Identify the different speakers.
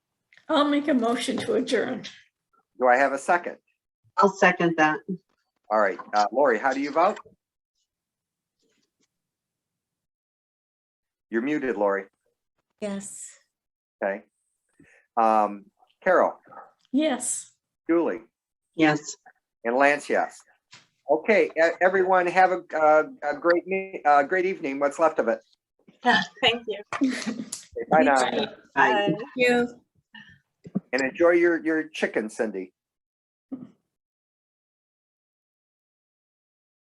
Speaker 1: I'll make a motion to adjourn.
Speaker 2: Do I have a second?
Speaker 3: I'll second that.
Speaker 2: All right, uh, Lori, how do you vote? You're muted, Lori.
Speaker 4: Yes.
Speaker 2: Okay. Um, Carol,
Speaker 1: Yes.
Speaker 2: Julie,
Speaker 3: Yes.
Speaker 2: and Lance, yes. Okay, e- everyone, have a, uh, a great, me- uh, great evening, what's left of it.
Speaker 5: Thank you.
Speaker 2: Bye now,
Speaker 1: Bye.
Speaker 3: Aye.
Speaker 5: Bye.
Speaker 2: and enjoy your, your chicken, Cindy.